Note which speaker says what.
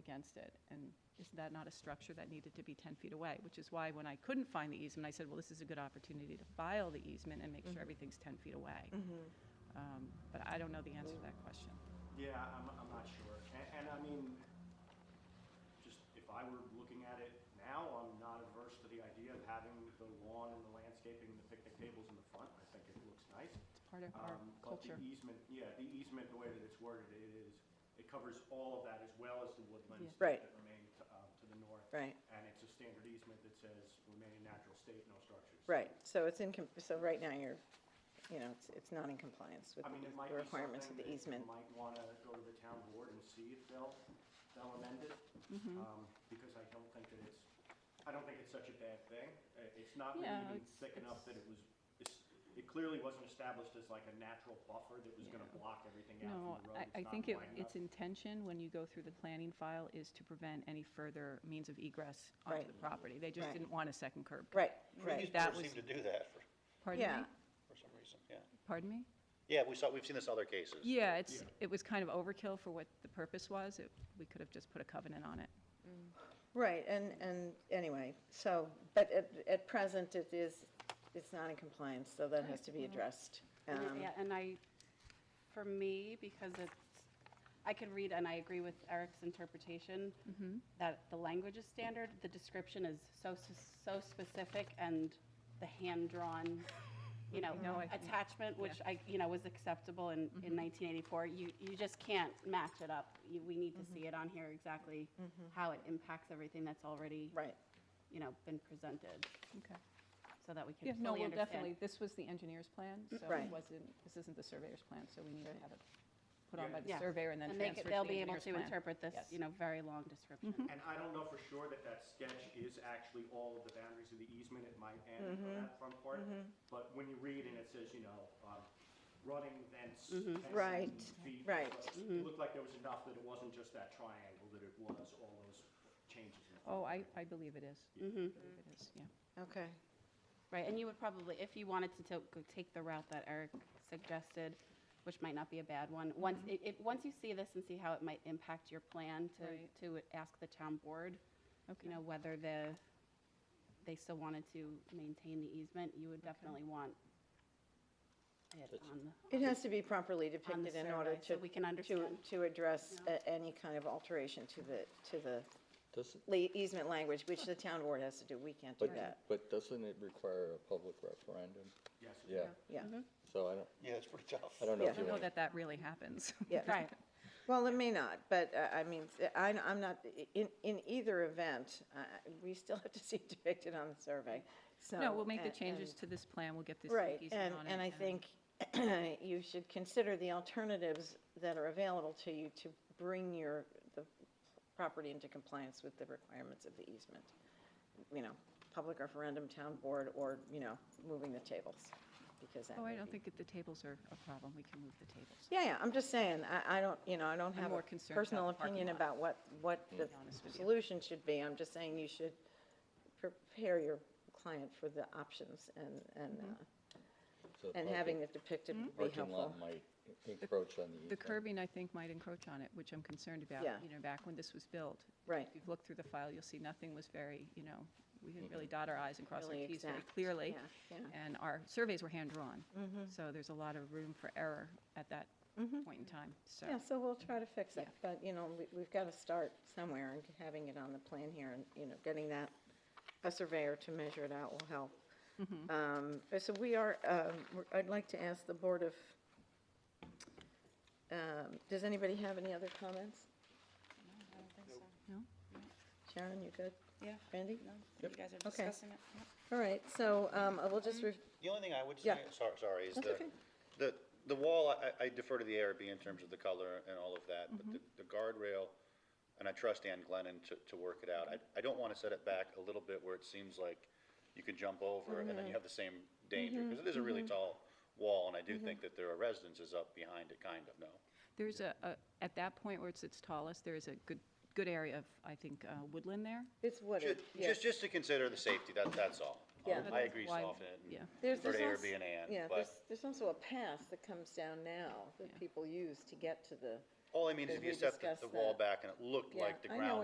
Speaker 1: against it. And isn't that not a structure that needed to be 10 feet away? Which is why when I couldn't find the easement, I said, well, this is a good opportunity to file the easement and make sure everything's 10 feet away. Um, But I don't know the answer to that question.
Speaker 2: Yeah, I'm, I'm not sure. And, and I mean, just if I were looking at it now, I'm not averse to the idea of having the lawn and the landscaping and the picnic tables in the front. I think it looks nice.
Speaker 1: It's part of our
Speaker 2: Um, But
Speaker 1: culture.
Speaker 2: the easement, yeah, the easement, the way that it's worded, it is, it covers all of that as well as the woodlands
Speaker 3: Yeah. Right.
Speaker 2: that remain to, um, to the north.
Speaker 3: Right.
Speaker 2: And it's a standard easement that says remain in natural state, no structures.
Speaker 3: Right, so it's in, com- so right now you're, you know, it's, it's not in compliance with
Speaker 2: I mean, it
Speaker 3: the
Speaker 2: might be
Speaker 3: requirements of
Speaker 2: something
Speaker 3: the
Speaker 2: that you
Speaker 3: easement.
Speaker 2: might want to go to the town board and see if they'll, they'll amend it.
Speaker 1: Mm-hmm.
Speaker 2: Um, Because I don't think that it's, I don't think it's such a bad thing. Uh, It's not really
Speaker 1: Yeah,
Speaker 2: even
Speaker 1: it's-
Speaker 2: thick enough that
Speaker 1: it's-
Speaker 2: it was, it's- it clearly wasn't established as like a natural buffer that was going to
Speaker 1: Yeah.
Speaker 2: block everything
Speaker 1: No,
Speaker 2: out from the road.
Speaker 1: I, I
Speaker 2: not
Speaker 1: think it,
Speaker 2: wide
Speaker 1: its
Speaker 2: enough.
Speaker 1: intention, when you go through the planning file, is to prevent any further means of egress onto
Speaker 3: Right.
Speaker 1: the property. They just
Speaker 3: Right.
Speaker 1: didn't want a second curb. cut.
Speaker 3: Right,
Speaker 1: Right.
Speaker 3: right,
Speaker 1: That
Speaker 4: Previous boards seem to do that for,
Speaker 1: Pardon
Speaker 3: yeah,
Speaker 1: me?
Speaker 4: for some reason, yeah.
Speaker 1: Pardon me?
Speaker 4: Yeah, we saw, we've seen this in other cases.
Speaker 1: Yeah, it's,
Speaker 2: Yeah.
Speaker 1: it was kind of overkill for what the purpose was. It- We could have just put a covenant on it.
Speaker 3: right, and, and anyway, so, but at, at present it is, it's not in compliance, so that has to be addressed. Um,
Speaker 5: And- Yeah, and I, for me, because it's, I could read, and I agree with Eric's
Speaker 1: Mm-hmm.
Speaker 5: interpretation, that the language is standard, the description is so, so specific, and the hand-drawn, you
Speaker 1: No,
Speaker 5: know,
Speaker 1: I- Mm-hmm.
Speaker 5: attachment, which I, you know, was acceptable in, in 1984, you, you just can't match it up. You- We need to
Speaker 1: Mm-hmm.
Speaker 5: see it on here exactly how it impacts everything that's already,
Speaker 3: Right,
Speaker 5: you know, been presented,
Speaker 1: Okay.
Speaker 5: so that we can
Speaker 1: Yeah, no,
Speaker 5: fully
Speaker 1: well, definitely,
Speaker 5: understand.
Speaker 1: this was the engineer's plan, so it
Speaker 3: Right.
Speaker 1: wasn't, this isn't the surveyor's plan, so we need to
Speaker 3: Right.
Speaker 1: have it put on by the
Speaker 5: Yeah.
Speaker 1: surveyor and then
Speaker 5: they
Speaker 1: transferred to
Speaker 5: could-
Speaker 1: the engineer's plan.
Speaker 5: They'll be able to interpret
Speaker 1: Yes.
Speaker 5: this, you know, very long description.
Speaker 2: And I don't know for sure that that sketch is actually all of the boundaries of the easement, it might end on
Speaker 1: Mm-hmm.
Speaker 2: that front part. But when you read and it says, you know, um, running thence.
Speaker 1: Mm-hmm.
Speaker 2: thence and
Speaker 3: Right,
Speaker 2: feet,
Speaker 3: right.
Speaker 2: but It looked like there was enough that it wasn't just that triangle, that it was all those changes. in the
Speaker 1: Oh, I,
Speaker 2: footprint.
Speaker 1: I believe it is. I
Speaker 3: Mm-hmm.
Speaker 1: believe it is, yeah.
Speaker 3: okay,
Speaker 5: Right, and you would probably, if you wanted to to- go take the route that Eric suggested, which might not be a bad one, once,
Speaker 1: Mm-hmm.
Speaker 5: it, it, once you see this and see how it might impact your plan to,
Speaker 1: Right.
Speaker 5: to ask the town board,
Speaker 1: Okay.
Speaker 5: you know, whether the, they still wanted to maintain the easement, you would definitely want it on the.
Speaker 3: it has to be properly depicted in order
Speaker 5: survey,
Speaker 3: to.
Speaker 5: so we can understand.
Speaker 3: To, to address
Speaker 5: Yeah.
Speaker 3: a- any kind of alteration to the, to the
Speaker 6: Doesn't,
Speaker 3: le- easement language, which the town board has to do, we can't do
Speaker 6: but,
Speaker 3: that,
Speaker 6: but doesn't it require a public referendum?
Speaker 2: Yes. it
Speaker 6: Yeah,
Speaker 3: yeah.
Speaker 6: so I don't,
Speaker 4: Yeah, it's pretty tough.
Speaker 6: I don't know
Speaker 1: Mm-hmm. I
Speaker 3: Yeah.
Speaker 6: if you
Speaker 1: don't know
Speaker 6: want,
Speaker 1: that that really happens.
Speaker 3: Yeah.
Speaker 5: Right,
Speaker 3: Well, it may not, but uh, I mean, I- I'm not, in, in either event, uh, we still have to see it depicted on the survey, so.
Speaker 1: No, we'll make the
Speaker 3: and-
Speaker 1: changes
Speaker 3: and-
Speaker 1: to this plan, we'll get this
Speaker 3: Right,
Speaker 1: easement on
Speaker 3: and,
Speaker 1: it.
Speaker 3: and I think you should consider the alternatives that are available to you to bring your, the property into compliance with the requirements of the easement. You know, public referendum, town board, or, you know, moving the tables, because that
Speaker 1: Oh,
Speaker 3: may
Speaker 1: I don't
Speaker 3: be-
Speaker 1: think that the tables are a problem, we can move the tables.
Speaker 3: Yeah, yeah, I'm just saying, I, I don't, you know, I don't have
Speaker 1: more
Speaker 3: a
Speaker 1: concerned about
Speaker 3: personal
Speaker 1: the parking
Speaker 3: opinion
Speaker 1: lot.
Speaker 3: about what, what the
Speaker 1: be honest with you.
Speaker 3: solution should be. I'm just saying you should prepare your client for the options and,
Speaker 1: Mm-hmm.
Speaker 3: and, uh,
Speaker 6: so
Speaker 3: and having it depicted would be
Speaker 6: parking lot
Speaker 3: helpful.
Speaker 6: might encroach on
Speaker 1: The
Speaker 6: the easement.
Speaker 1: curbing, I think, might encroach on it, which I'm concerned about.
Speaker 3: Yeah.
Speaker 1: You know, back when this was built.
Speaker 3: Right.
Speaker 1: If you've looked through the file, you'll see nothing was very, you know, we didn't really dot our i's and cross our
Speaker 3: Really
Speaker 1: t's very
Speaker 3: exact.
Speaker 1: clearly.
Speaker 3: Yeah, yeah. Mm-hmm,
Speaker 1: And our surveys were hand-drawn. So there's a lot of room for error at that point in time, so.
Speaker 3: Yeah, so we'll try to fix it,
Speaker 1: Yeah.
Speaker 3: but, you know, we, we've got to start somewhere and having it on the plan here and, you know, getting that, a surveyor to measure it out will help.
Speaker 7: Mm-hmm.
Speaker 3: Um, So we are, um, we're- I'd like to ask the Board of, um, does anybody have any other comments?
Speaker 1: No?
Speaker 3: Sharon, you good?
Speaker 7: Yeah.
Speaker 3: Randy?
Speaker 7: No, you guys are
Speaker 3: Okay.
Speaker 7: discussing it. Mm-hmm. Yep.
Speaker 3: All right, so um, I will just, re-
Speaker 4: The only thing I would
Speaker 3: Yeah.
Speaker 4: say, sorry, sorry, is
Speaker 3: That's
Speaker 4: the,
Speaker 3: okay.
Speaker 4: the, the wall, I, I defer to the ARB in terms of the color and all of that, but the, the guardrail, and I trust Ann Glennon to, to work it out. I, I don't want to set it back a little bit where it seems like you could jump over and then you have the same danger, because it is a really tall wall, and I do think that there are residences up behind it, kind of, no?
Speaker 1: There's a, a- at that point where it's its tallest, there is a good, good area of, I think, uh, woodland there.
Speaker 3: it's wooded,
Speaker 4: Ju- Just,
Speaker 3: yes.
Speaker 4: just to consider the safety, that, that's all.
Speaker 3: Yeah.
Speaker 4: Um, I agree,
Speaker 1: Why-
Speaker 4: soften it. and
Speaker 1: yeah.
Speaker 3: There's-
Speaker 4: defer to
Speaker 3: there's
Speaker 4: ARB
Speaker 3: als-
Speaker 4: and Ann,
Speaker 3: Yeah,
Speaker 4: but-
Speaker 3: there's, there's also a path that comes down now
Speaker 1: Yeah.
Speaker 3: that people use to get to the.
Speaker 4: All I mean is if
Speaker 3: We
Speaker 4: you set the-
Speaker 3: discussed
Speaker 4: the wall
Speaker 3: that.
Speaker 4: back and it looked
Speaker 3: Yeah,
Speaker 4: like the
Speaker 3: I know
Speaker 4: ground